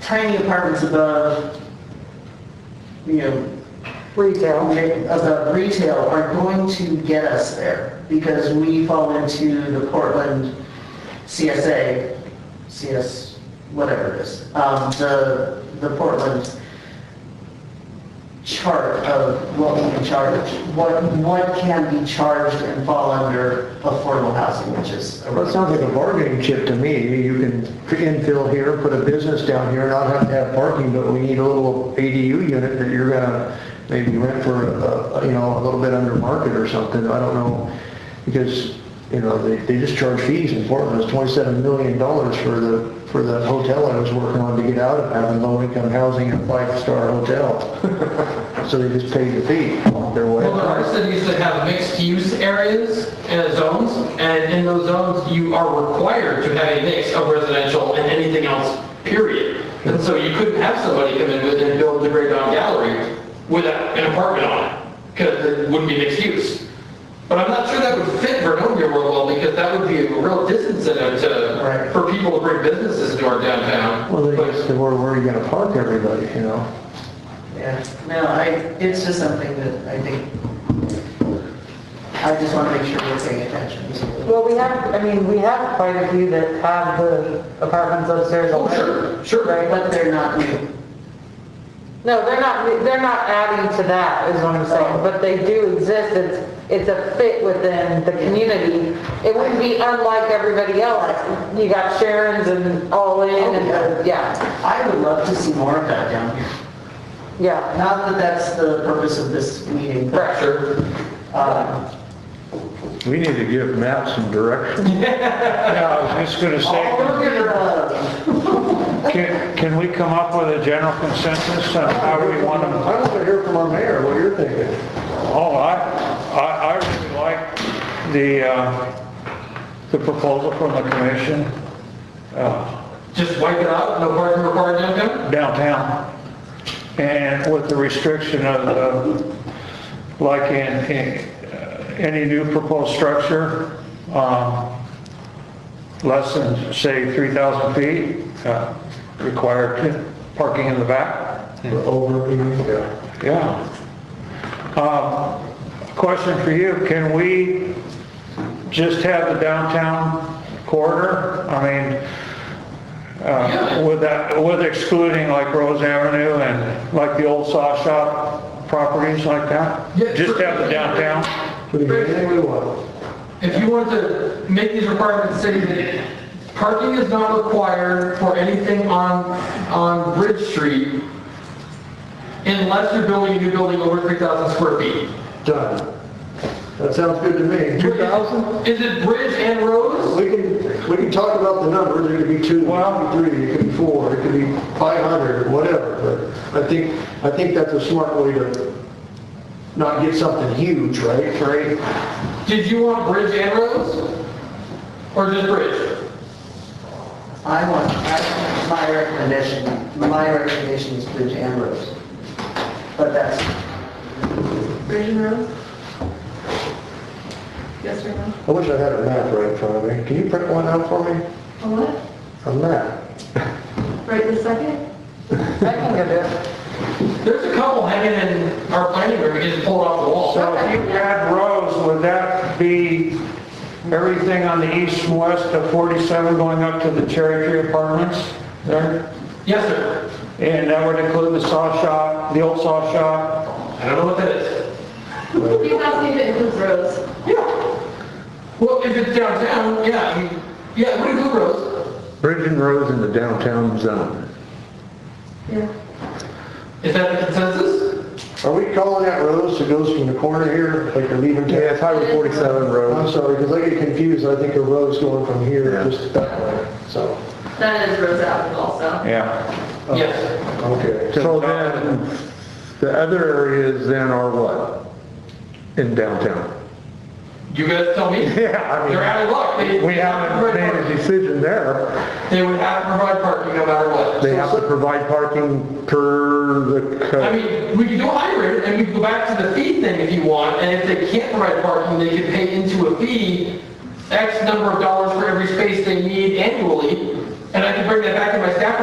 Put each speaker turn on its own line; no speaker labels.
tiny apartments above, you know,
retail.
above retail are going to get us there because we fall into the Portland CSA, CS, whatever it is, um, the, the Portland chart of what we can charge, what, what can be charged and fall under affordable housing, which is a
Well, it sounds like a bargaining chip to me. You can infill here, put a business down here, not have to have parking, but we need a little ADU unit that you're gonna maybe rent for, uh, you know, a little bit under market or something. I don't know. Because, you know, they, they just charge fees in Portland. It's twenty-seven million dollars for the, for the hotel I was working on to get out of having low-income housing and a five-star hotel. So they just paid the fee their way.
Well, there are cities that have mixed-use areas and zones, and in those zones, you are required to have a mix of residential and anything else, period. And so you couldn't have somebody come in with and build the Great Down Gallery with a- an apartment on it, because it wouldn't be mixed use. But I'm not sure that would fit Vernonia real well, because that would be a real disincentive to,
Right.
for people to bring businesses into our downtown.
Well, they
But-
just, where, where are you gonna park everybody, you know?
Yeah, no, I, it's just something that I think, I just want to make sure we're paying attention to.
Well, we have, I mean, we have quite a few that have the apartments upstairs
Oh,
already.
sure, sure.
Right?
But they're not new.
No, they're not, they're not adding to that, is what I'm saying, but they do exist, it's, it's a fit within the community. It wouldn't be unlike everybody else, you got Sharon's and All In,
Oh,
and, yeah,
I would love to see more of that down here.
yeah,
Not that that's the purpose of this meeting, but,
right.
Sure.
um,
We need to give Matt some direction.
Yeah, I was just gonna
all
say,
we're gonna,
can, can we come up with a general consensus on how we want them?
I want to hear from our mayor, what you're thinking.
Oh, I, I, I really like the, uh, the proposal from the commission uh,
Just wipe it out, no parking required downtown?
downtown. And with the restriction of, the- like in, in uh, any new proposed structure, um, less than, say, 3,000 feet, uh, required parking in the back.
Over, yeah.
Yeah. Um, Question for you, can we just have the downtown corridor? I mean, uh, with that, with excluding like Rose Avenue and like the old saw shop properties like that?
Yeah,
Just
sure.
have the downtown?
We can do anything we want.
If you want to make these requirements, say that parking is not required for anything on, on Bridge Street unless you're building a new building over 3,000 square feet.
Done. That sounds good to me. Two thousand?
Is it Bridge and Rose?
We can, we can talk about the numbers, it could be two, it could be three, it could be four, it could be five hundred, whatever, but I think, I think that's a smart way to not get something huge, right? Right.
Did you want Bridge and Rose? Or just Bridge?
I want, I, my recommendation, my recommendation is Bridge and Rose. But that's. Bridge and Rose?
Yes or no?
I wish I had a map right in front of me. Can you print one out for me?
A what?
A map?
Right this second?
I can get it.
There's a couple hanging in our planning room, we can just pull it off the wall.
So if you add Rose, would that be everything on the east and west of 47 going up to the Cherry Tree Apartments there?
Yes, sir.
And that would include the saw shop, the old saw shop?
I don't know what that is.
You asked me if it includes roads.
Well, if it's downtown, yeah, I mean, yeah, it would include Rose.
Bridge and roads in the downtown zone.
Yeah.
Is that the consensus?
Are we calling that Rose that goes from the corner here, like you're leaving? Yeah, it's Highway
47
Road. I'm sorry, because I get confused, I think a road's going from here just that way, so,
That is Rose Avenue also.
Yeah.
Yes.
okay.
So then, the other areas then are what? In downtown?
You guys tell me.
Yeah, I mean-
They're out of luck. They-
We
they have to
haven't
provide
made a
parking.
decision there.
They would have to provide parking no matter what.
They have to provide parking per the
I
code.
mean, we could do a hybrid and we could go back to the fee thing if you want, and if they can't provide parking, they could pay into a fee, X number of dollars for every space they need annually, and I could bring that back in my staff